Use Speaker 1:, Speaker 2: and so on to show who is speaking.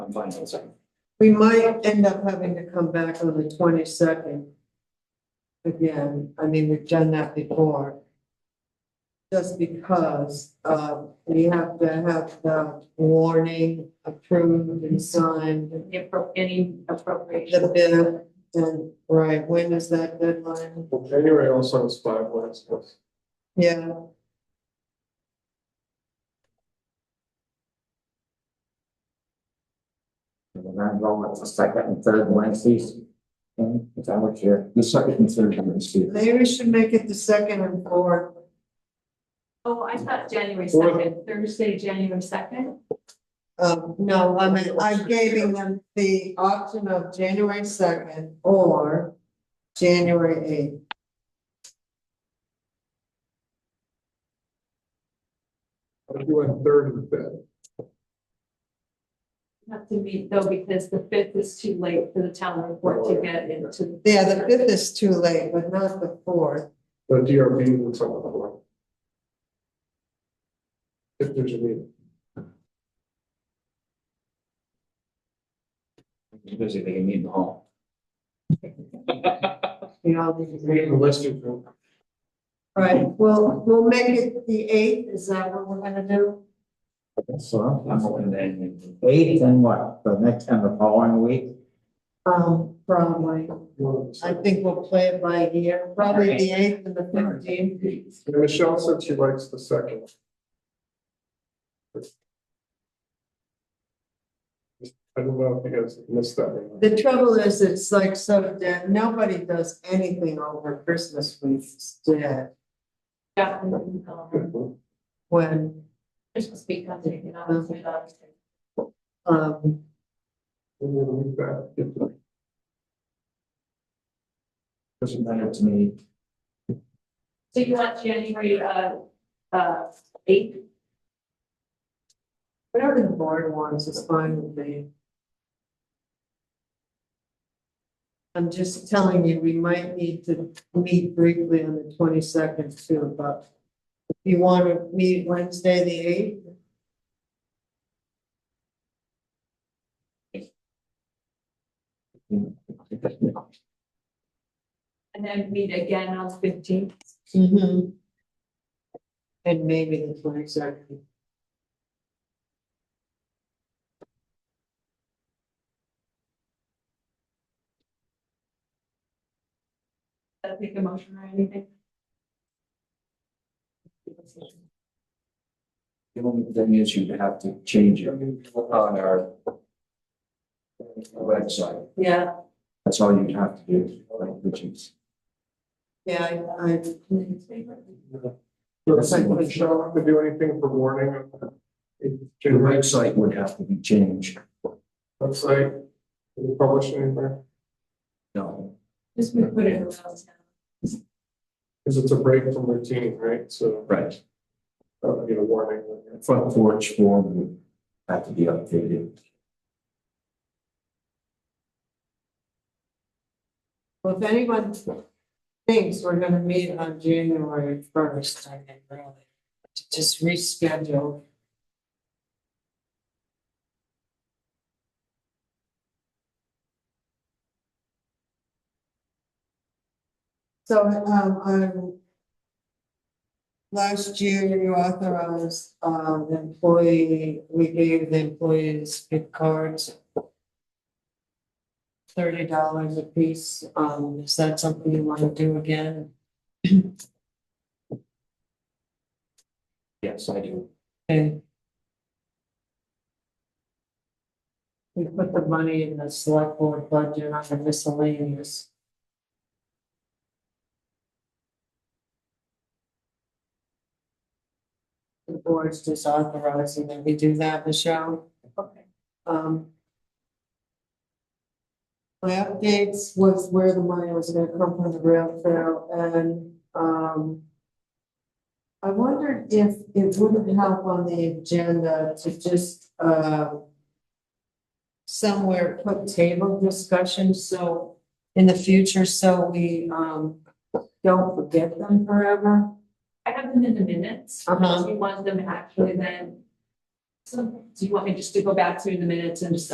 Speaker 1: on financing.
Speaker 2: We might end up having to come back on the twenty-second. Again, I mean, we've done that before. Just because, uh, we have to have the warning approved and signed,
Speaker 3: the appro- any
Speaker 2: the
Speaker 3: appropriation.
Speaker 2: bid, and, right, when is that deadline?
Speaker 4: Well, January also is five last months.
Speaker 2: Yeah,
Speaker 1: And then go with the second and third Wednesdays. And is that what you're? The second and third Wednesdays.
Speaker 2: maybe we should make it the second and fourth.
Speaker 3: Oh, I thought January
Speaker 4: Fourth.
Speaker 3: second, Thursday, January second.
Speaker 2: Um, no, I mean, I'm giving them the option of January second or January eighth.
Speaker 4: I'm doing third and fifth.
Speaker 3: Have to meet though, because the fifth is too late for the town report to get into.
Speaker 2: Oh, Yeah, the fifth is too late, but not the fourth.
Speaker 4: The DRB will tell the board. If there's a meeting.
Speaker 1: Busy, they can meet in the hall.
Speaker 2: We all need to
Speaker 4: Meeting
Speaker 2: be.
Speaker 4: the list of them.
Speaker 2: Right, well, we'll make it the eighth. Is that what we're gonna do?
Speaker 1: So I'm hoping then eighth and what, the next and the following week?
Speaker 2: Um, probably. I think we'll play it by ear, probably the eighth and the fifteenth.
Speaker 4: And Michelle said she likes the second. I don't know if you guys missed that. or not.
Speaker 2: The trouble is, it's like so dead. Nobody does anything over Christmas week. It's dead.
Speaker 3: Yeah, and then, um,
Speaker 2: When,
Speaker 3: Christmas week, I'm taking out of it, obviously.
Speaker 2: um,
Speaker 4: Maybe we'll leave that. If the
Speaker 1: Doesn't matter to me.
Speaker 3: So you want January, uh, uh, eighth?
Speaker 2: whatever the board wants is fine with me. I'm just telling you, we might need to meet briefly on the twenty-second too, but if you want to meet Wednesday, the eighth,
Speaker 3: And then meet again on the fifteenth.
Speaker 2: Mm-hmm. And maybe the twenty-second.
Speaker 3: That'll take a motion or anything.
Speaker 1: The only thing is you have to change it on our website.
Speaker 3: Yeah,
Speaker 1: That's all you have to do, like, which is.
Speaker 2: Yeah, I, I.
Speaker 4: Michelle have to do anything for warning.
Speaker 1: The
Speaker 4: January
Speaker 1: website would have to be changed.
Speaker 4: website, we publish anywhere,
Speaker 1: No,
Speaker 3: just we put it around town.
Speaker 4: because it's a break from routine, right? So,
Speaker 1: right.
Speaker 4: uh, you know, warning.
Speaker 1: Front porch form would have to be updated.
Speaker 2: Well, if anyone thinks we're gonna meet on January first, I can really to just reschedule. So, um, um, last year you authorized, um, the employee, we gave the employees gift cards thirty dollars a piece, um, is that something you wanna do again?
Speaker 1: Yes, I do.
Speaker 2: And we put the money in the select board budget on the miscellaneous. The board's just authorizing that we do that, Michelle,
Speaker 3: Okay.
Speaker 2: um. My updates was where the money was gonna come from the rail trail and, um. I wondered if it wouldn't help on the agenda to just, uh. Somewhere put table discussion, so in the future, so we, um, don't forget them forever.
Speaker 3: I have them in the minutes.
Speaker 2: Uh-huh.
Speaker 3: Do you want them actually then? So, do you want me just to go back through the minutes and just